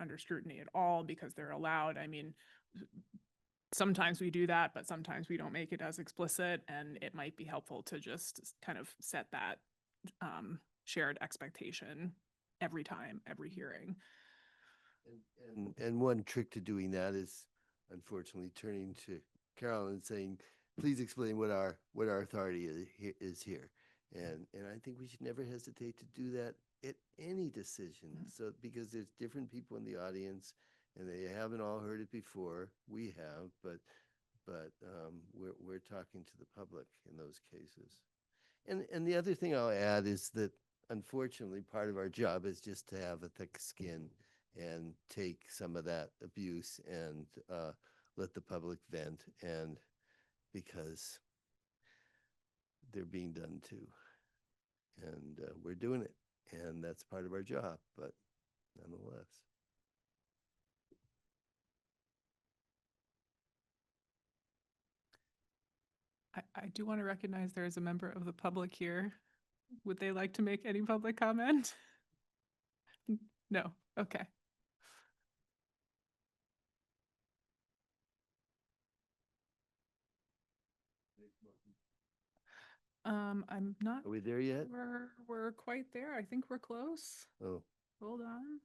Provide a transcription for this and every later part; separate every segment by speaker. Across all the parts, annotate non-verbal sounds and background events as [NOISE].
Speaker 1: under scrutiny at all because they're allowed. I mean, sometimes we do that, but sometimes we don't make it as explicit and it might be helpful to just s- kind of set that um, shared expectation every time, every hearing.
Speaker 2: And- And, and one trick to doing that is unfortunately turning to Carol and saying, please explain what our, what our authority is he- is here. And, and I think we should never hesitate to do that at any decision.
Speaker 1: Mm.
Speaker 2: So, because there's different people in the audience and they haven't all heard it before. We have, but, but, um, we're, we're talking to the public in those cases. And, and the other thing I'll add is that unfortunately, part of our job is just to have a thick skin and take some of that abuse and uh, let the public vent and because they're being done too. And uh, we're doing it and that's part of our job, but nonetheless.
Speaker 1: I, I do want to recognize there is a member of the public here. Would they like to make any public comment? N- No, okay. Um, I'm not,
Speaker 2: Are we there yet?
Speaker 1: we're, we're quite there. I think we're close.
Speaker 2: Oh,
Speaker 1: Hold on.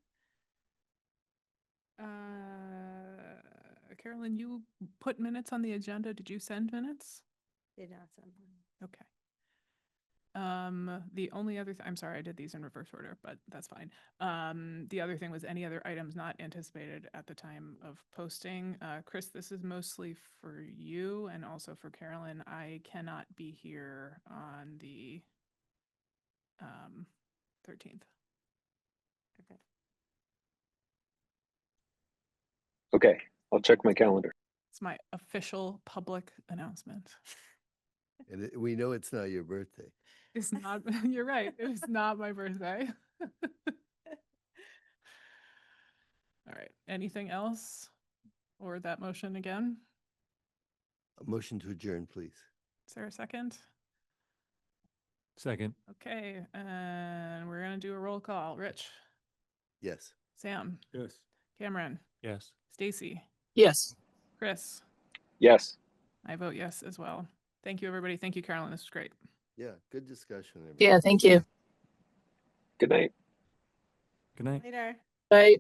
Speaker 1: Uh, Carolyn, you put minutes on the agenda. Did you send minutes?
Speaker 3: Did not send one.
Speaker 1: Okay. Um, the only other, th- I'm sorry, I did these in reverse order, but that's fine. Um, the other thing was any other items not anticipated at the time of posting. Uh, Chris, this is mostly for you and also for Carolyn. I cannot be here on the um, thirteenth.
Speaker 3: Okay.
Speaker 4: Okay, I'll check my calendar.
Speaker 1: It's my official public announcement.
Speaker 2: and it- we know it's not your birthday.
Speaker 1: It's not, [LAUGHS] you're right, it was not my birthday. [LAUGHS] All right, anything else? Or that motion again?
Speaker 2: A motion to adjourn, please.
Speaker 1: Is there a second?
Speaker 5: Second.
Speaker 1: Okay, and we're gonna do a roll call. Rich,
Speaker 2: Yes.
Speaker 1: Sam,
Speaker 5: Yes.
Speaker 1: Cameron,
Speaker 5: Yes.
Speaker 1: Stacy,
Speaker 6: Yes.
Speaker 1: Chris.
Speaker 4: Yes.
Speaker 1: I vote yes as well. Thank you, everybody. Thank you, Carolyn. This was great.
Speaker 2: Yeah, good discussion. everybody.
Speaker 6: Yeah, thank you.
Speaker 4: Good night.
Speaker 5: Good night.
Speaker 3: Later.
Speaker 6: Bye.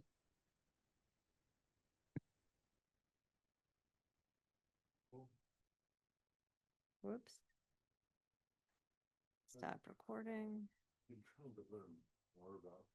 Speaker 3: Whoops. Stop recording.
Speaker 2: You're trying to learn more about